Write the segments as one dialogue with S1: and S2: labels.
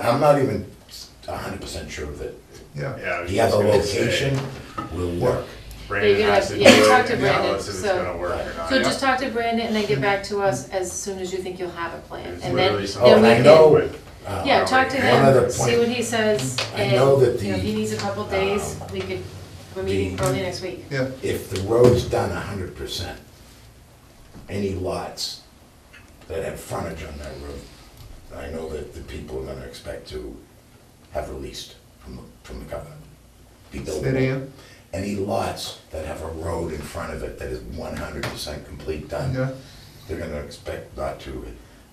S1: I'm not even hundred percent sure that
S2: Yeah,
S3: Yeah, I was
S1: the
S3: just
S1: other
S3: gonna say,
S1: location will work.
S3: Brandon
S4: Yeah,
S3: has to do
S4: yeah, talk
S3: it
S4: to
S3: and
S4: Brandon,
S3: tell us if it's
S4: so-
S3: gonna work or not.
S4: So just talk to Brandon and then get back to us as soon as you think you'll have a plan.
S3: It's
S4: And
S3: literally
S4: then,
S3: something
S4: then
S1: Oh, I
S4: we can.
S1: know,
S3: uh,
S4: Yeah, talk to
S3: one
S1: other
S4: him,
S1: point.
S4: see what he says.
S1: I know that
S4: and, you
S1: the,
S4: know, if he needs a couple of days,
S1: um,
S4: we could, we're meeting
S1: the-
S4: early next week.
S2: yeah,
S1: if the road's done hundred percent, any lots that have frontage on that road, I know that the people are gonna expect to have released from, the from the covenant. Be built.
S2: say it again,
S1: Any lots that have a road in front of it that is one hundred percent complete done,
S2: yeah.
S1: they're gonna expect not to,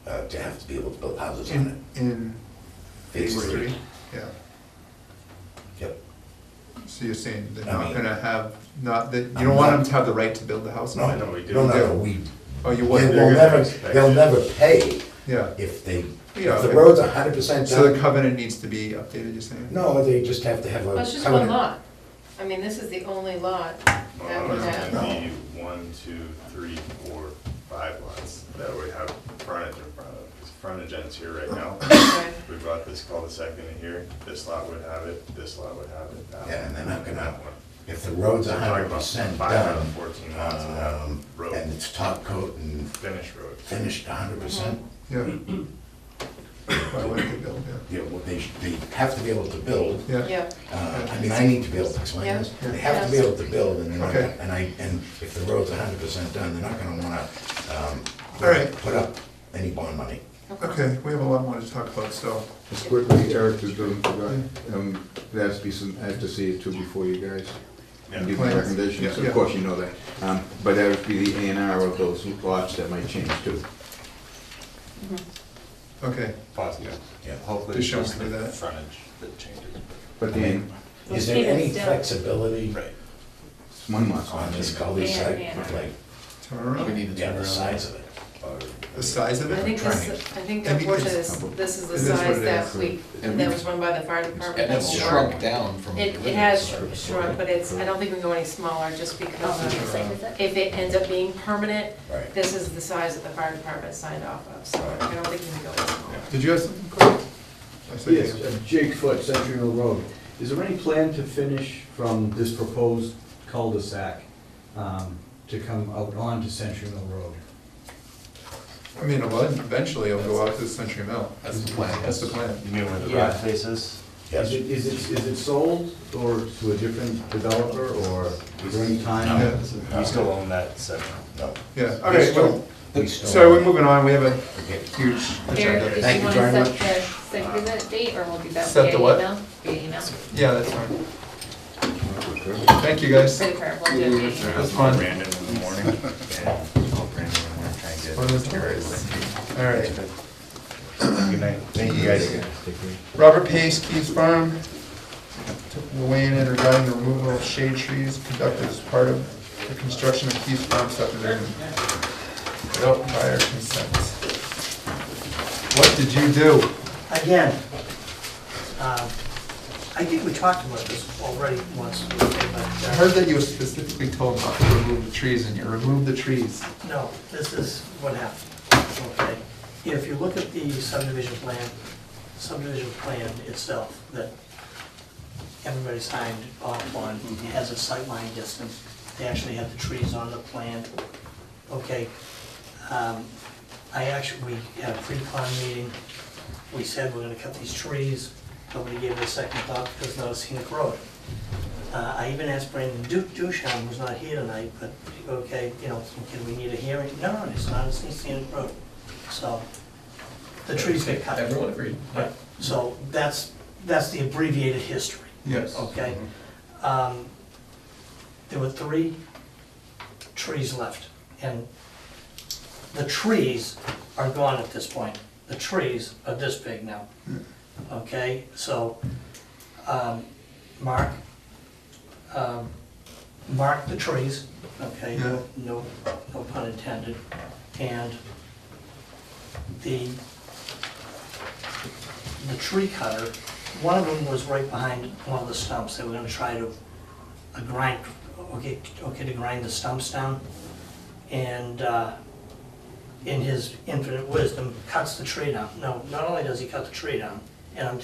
S1: uh, to have to be able to build houses on it.
S2: In, in
S1: Phase
S2: Phase
S1: three.
S2: three, yeah.
S1: Yep.
S2: So you're saying they're
S1: I
S2: not
S1: mean-
S2: gonna have, not, that, you
S1: I'm
S2: don't want them
S1: not-
S2: to have the right to build the house
S1: No,
S2: on it?
S3: No,
S1: no,
S3: we
S1: no, no,
S2: do.
S1: we,
S2: Oh, you
S1: they
S2: wouldn't?
S1: will
S3: gonna
S1: never,
S3: expect
S1: they'll
S3: it.
S1: never pay
S2: Yeah,
S1: if they,
S2: Yeah,
S1: if the
S2: okay.
S1: road's hundred percent
S2: so the
S1: done.
S2: covenant needs to be updated, you're saying?
S1: No, they just have to have a.
S4: Well, it's just one
S1: covenant.
S4: lot. I mean, this is the only lot that
S3: Well,
S4: would
S3: it's
S4: have.
S3: gonna be one, two, three, four, five lots that would have frontage in front of, because frontage ends here right now.
S4: Okay.
S3: We brought this cul-de-sac in here, this lot would have it, this lot would have it, that one.
S1: Yeah, and they're not gonna-
S3: that one.
S1: If the road's
S3: We're talking
S1: hundred
S3: about
S1: percent
S3: five out of
S1: done,
S3: Fourteen lots that
S1: um,
S3: have
S1: and
S3: road,
S1: it's top coat and
S3: finished road.
S1: finished hundred percent,
S4: Mm-hmm.
S2: Yeah. Why wouldn't they build, yeah?
S1: you know, they, they have to be able to build.
S2: Yeah,
S4: Yeah,
S1: Uh, I mean, I need to be able to explain
S4: Yeah.
S1: this. They have to be able to build and, they're not
S2: Okay.
S1: gonna- and I, and if the road's hundred percent done, they're not gonna wanna, um,
S2: All right.
S1: put up any bond money.
S4: okay.
S2: okay, we have a lot more to talk about, so,
S5: Just quickly, Eric has been forgotten, um, there has to be some, I have to see it too before you guys, and give my
S2: Plans.
S5: recommendations,
S2: Yeah, yeah.
S5: of course you know that. Um, but that would be the A and R of those lots that might change too.
S2: okay,
S3: Positive.
S1: Yeah.
S3: Hopefully
S2: Just
S3: it's
S2: show
S3: just
S2: me
S3: the
S2: that.
S3: frontage that changes.
S5: But then,
S1: Is there
S4: Even
S1: any
S4: still.
S1: flexibility
S3: Right.
S5: it's one lot's
S1: on
S5: not
S1: this
S5: changing.
S1: cul-de-sac,
S4: Yeah, yeah.
S1: like,
S2: turn around.
S1: yeah, the size of it? or-
S2: The size of
S4: I
S2: it?
S4: think this, I think
S2: Maybe
S4: unfortunately,
S2: it's-
S4: this, this is the
S2: It is what
S4: size
S2: it
S4: that
S2: is.
S4: we, that was run by the fire department.
S6: And that's
S4: before.
S6: shrunk down from.
S4: It, it has shrunk, but it's, I don't think we can go any smaller just because of- if it ends up being permanent,
S1: Right.
S4: this is the size that the fire department signed off of, so I don't think we can go any smaller.
S2: Did you have something, Clay? I said
S7: Yes,
S2: you-
S7: uh, Jake Foot, Century Mill Road. Is there any plan to finish from this proposed cul-de-sac um, to come out onto Century Mill Road?
S2: I mean, well, eventually it'll go out to Century Mill.
S6: That's the plan,
S2: That's the plan.
S3: You mean where the
S7: Yeah.
S3: garage faces?
S1: Yes.
S7: Is it, is it, is it sold or to a different developer or is there any time?
S2: No.
S3: You still own that section?
S1: No.
S2: Yeah, all
S1: We
S2: right,
S1: still,
S2: well,
S1: we still.
S2: so we're moving on, we have a
S1: Okay.
S2: huge
S8: Eric,
S2: agenda.
S8: did
S1: Thank
S8: you
S1: you
S8: want
S1: very
S8: to
S1: much.
S8: set the, set the date, or will be that
S2: Set
S8: via
S2: the what?
S8: email? Via email,
S2: Yeah, that's fine. Thank you, guys.
S8: for the prayer, we'll do it via email.
S2: That's fine.
S3: Brandon in the morning. Yeah. Call Brandon in the morning, try and get-
S2: What is that?
S3: get rid of
S2: All right.
S3: it. Good night. Thank you guys.
S2: Robert Pace, Keys Farm, will weigh in regarding the removal of shade trees conducted as part of the construction of Keys Farm subdivision without prior consent. What did you do?
S9: again, um, I think we talked about this already once, but
S2: I
S9: uh,
S2: heard that you were specifically told not to remove the trees, and you removed the trees.
S9: no, this is what happened, okay? If you look at the subdivision plan, subdivision plan itself that everybody signed off on has a sightline distance. They actually have the trees on the plan, okay? Um, I actually, we had a pre-con meeting, we said we're gonna cut these trees, nobody gave it a second thought, because it's not a scenic road. Uh, I even asked Brandon Duke Duchan, who's not here tonight, but, okay, you know, can we need a hearing? No, it's not a scenic road, so, the trees get cut.
S6: Everyone agreed.
S9: Right, so that's, that's the abbreviated history,
S2: Yes.
S9: okay? Um, There were three trees left, and the trees are gone at this point. The trees are this big now, okay? So, um, mark, um, mark the trees, okay?
S2: Yeah.
S9: No, no pun intended. And the the tree cutter, one of them was right behind one of the stumps, they were gonna try to uh, grind, okay, okay, to grind the stumps down. And, uh, in his infinite wisdom, cuts the tree down. No, not only does he cut the tree down, and I'm